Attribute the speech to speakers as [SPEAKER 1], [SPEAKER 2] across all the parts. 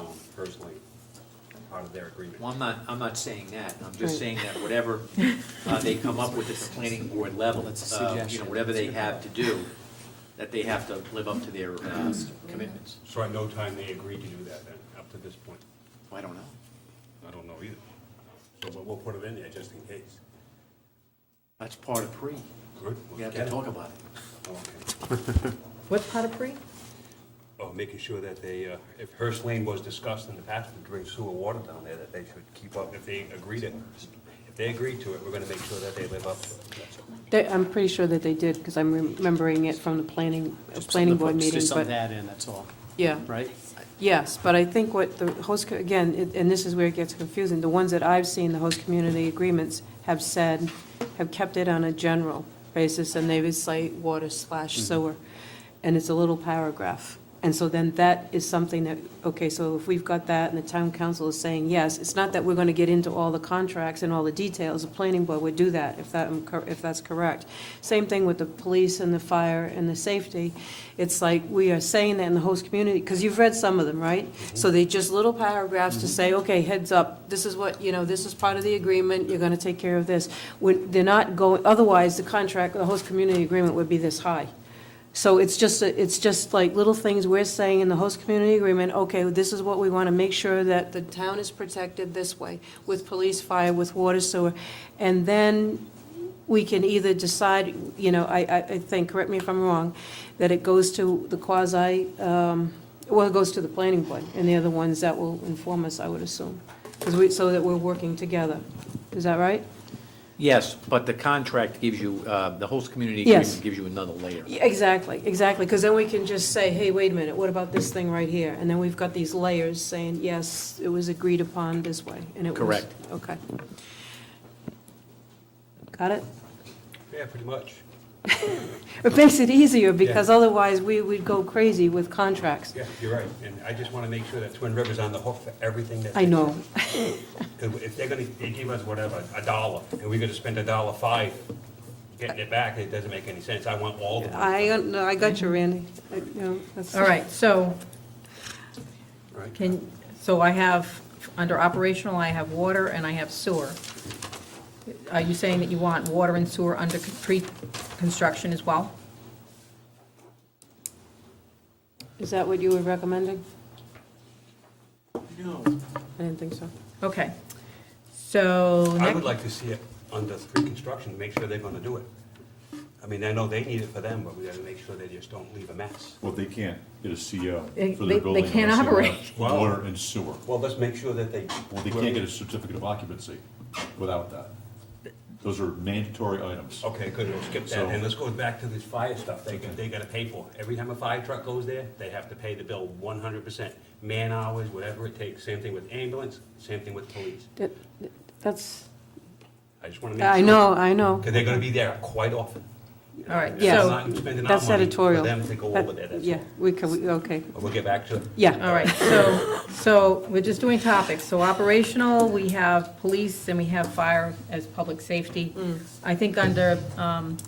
[SPEAKER 1] own personally, part of their agreement.
[SPEAKER 2] Well, I'm not, I'm not saying that, I'm just saying that whatever uh, they come up with at the planning board level,
[SPEAKER 3] That's a
[SPEAKER 2] uh, you know,
[SPEAKER 3] suggestion.
[SPEAKER 2] whatever they have to do, that they have to live up to their uh, commitments.
[SPEAKER 1] So at no time they agreed to do that then, up to this point?
[SPEAKER 2] Well, I don't know,
[SPEAKER 1] I don't know either. So, but we'll put it in there just in case.
[SPEAKER 2] that's part of pre,
[SPEAKER 1] Good.
[SPEAKER 2] we have to talk about it.
[SPEAKER 1] Oh, Okay.
[SPEAKER 4] What part of pre?
[SPEAKER 1] Oh, making sure that they, uh, if Hearst Lane was discussed in the past to bring sewer water down there, that they should keep up, if they agreed it. If they agreed to it, we're gonna make sure that they live up to it. That's all.
[SPEAKER 5] They- I'm pretty sure that they did, because I'm remembering it from the planning, uh,
[SPEAKER 3] Just
[SPEAKER 5] planning
[SPEAKER 3] something to
[SPEAKER 5] board
[SPEAKER 3] put-
[SPEAKER 5] meeting,
[SPEAKER 3] Just something to
[SPEAKER 5] but,
[SPEAKER 3] add in, that's all,
[SPEAKER 5] yeah.
[SPEAKER 3] right?
[SPEAKER 5] Yes, but I think what the host, co- again, it- and this is where it gets confusing, the ones that I've seen, the host community agreements have said, have kept it on a general basis, and they would say water slash sewer, and it's a little paragraph. And so then that is something that, okay, so if we've got that and the town council is saying yes, it's not that we're gonna get into all the contracts and all the details, the planning board would do that, if that, if that's correct. Same thing with the police and the fire and the safety, it's like, we are saying that in the host community, because you've read some of them, right? So they just little paragraphs to say, okay, heads up, this is what, you know, this is part of the agreement, you're gonna take care of this. When, they're not going, otherwise, the contract, the host community agreement would be this high. So it's just, a- it's just like little things we're saying in the host community agreement, okay, this is what we want to make sure that the town is protected this way, with police, fire, with water, sewer. And then we can either decide, you know, I, I I think, correct me if I'm wrong, that it goes to the quasi, um, well, it goes to the planning board, and they're the ones that will inform us, I would assume, 'cause we, so that we're working together. Is that right?
[SPEAKER 2] Yes, but the contract gives you, uh, the host community
[SPEAKER 5] Yes.
[SPEAKER 2] agreement gives you another layer.
[SPEAKER 5] Yeah, Exactly, exactly, because then we can just say, hey, wait a minute, what about this thing right here? And then we've got these layers saying, yes, it was agreed upon this way, and it was.
[SPEAKER 2] Correct.
[SPEAKER 5] Okay. Got it?
[SPEAKER 1] Yeah, pretty much.
[SPEAKER 5] It makes it easier, because otherwise, we would go crazy with contracts.
[SPEAKER 1] Yeah, you're right. And I just wanna make sure that Twin River's on the hook for everything that.
[SPEAKER 5] I know,
[SPEAKER 1] Because if they're gonna, they give us whatever, a dollar, and we're gonna spend a dollar five getting it back, it doesn't make any sense. I want all the money.
[SPEAKER 5] I, no, I got you, Randy. I- you know, that's-
[SPEAKER 4] All right, so
[SPEAKER 1] Right.
[SPEAKER 4] can, so I have, under operational, I have water and I have sewer. Are you saying that you want water and sewer under con- pre-construction as well?
[SPEAKER 5] Is that what you were recommending?
[SPEAKER 2] No.
[SPEAKER 5] I didn't think so.
[SPEAKER 4] Okay, so,
[SPEAKER 1] I would
[SPEAKER 4] next-
[SPEAKER 1] like to see it under pre-construction, to make sure they're gonna do it. I mean, I know they need it for them, but we gotta make sure they just don't leave a mess.
[SPEAKER 6] Well, they can't get a CO for
[SPEAKER 4] They-
[SPEAKER 6] their
[SPEAKER 4] they- they
[SPEAKER 6] building.
[SPEAKER 4] can't
[SPEAKER 6] unless they
[SPEAKER 4] operate.
[SPEAKER 6] have
[SPEAKER 1] Wow.
[SPEAKER 6] Water and sewer.
[SPEAKER 1] Well, let's make sure that they.
[SPEAKER 6] Well, they can't get a certificate of occupancy without that. Those are mandatory items.
[SPEAKER 1] Okay, good, we'll skip that,
[SPEAKER 6] So-
[SPEAKER 1] and let's go back to this fire stuff, they, they gotta pay for it. Every time a fire truck goes there, they have to pay the bill one hundred percent. Man hours, whatever it takes, same thing with ambulance, same thing with police.
[SPEAKER 5] That- That's,
[SPEAKER 1] I just wanna make sure.
[SPEAKER 5] I know, I know.
[SPEAKER 1] Because they're gonna be there quite often. you know,
[SPEAKER 4] All right,
[SPEAKER 1] and
[SPEAKER 5] Yes.
[SPEAKER 1] I'm not spending our
[SPEAKER 5] That's
[SPEAKER 1] money
[SPEAKER 5] editorial.
[SPEAKER 1] For them to go
[SPEAKER 5] That-
[SPEAKER 1] over there, that's
[SPEAKER 5] Yeah,
[SPEAKER 1] all.
[SPEAKER 5] we could, we- okay,
[SPEAKER 1] But We'll get back to it.
[SPEAKER 5] yeah.
[SPEAKER 4] all right, so, so we're just doing topics. So operational, we have police and we have fire as public safety.
[SPEAKER 5] Mm.
[SPEAKER 4] I think under um,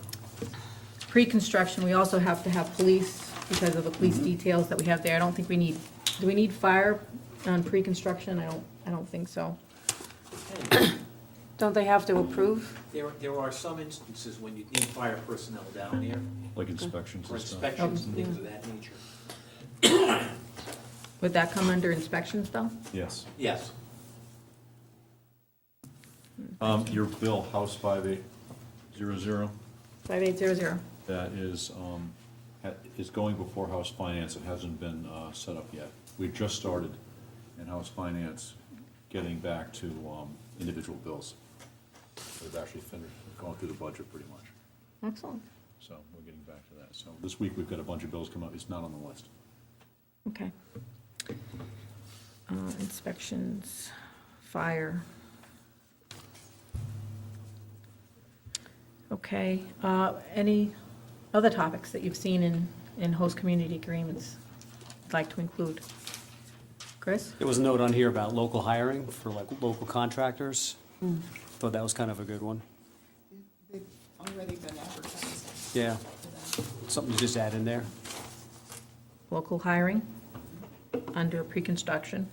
[SPEAKER 4] pre-construction, we also have to have police because of the police
[SPEAKER 5] Mm-hmm.
[SPEAKER 4] details that we have there. I don't think we need, do we need fire on pre-construction? I don't, I don't think so.
[SPEAKER 5] Don't they have to approve?
[SPEAKER 2] There, there are some instances when you need fire personnel down there
[SPEAKER 6] Like inspections
[SPEAKER 2] for
[SPEAKER 6] and stuff.
[SPEAKER 2] inspections and things of that nature.
[SPEAKER 4] Would that come under inspections though?
[SPEAKER 6] Yes.
[SPEAKER 2] Yes,
[SPEAKER 6] Um, your bill, House five eight zero zero,
[SPEAKER 4] 5800.
[SPEAKER 6] that is, um, ha- is going before House Finance. It hasn't been, uh, set up yet. We just started in House Finance getting back to, um, individual bills. We've actually finished, going through the budget pretty much.
[SPEAKER 4] Excellent,
[SPEAKER 6] So we're getting back to that. So this week, we've got a bunch of bills come up. It's not on the list.
[SPEAKER 4] okay. Uh, Inspections, fire. Okay, uh, any other topics that you've seen in, in host community agreements you'd like to include? Chris?
[SPEAKER 3] There was a note on here about local hiring for like local contractors.
[SPEAKER 5] Hmm.
[SPEAKER 3] Thought that was kind of a good one.
[SPEAKER 7] They've already been advertised.
[SPEAKER 3] Yeah, something to just add in there.
[SPEAKER 4] Local hiring under pre-construction?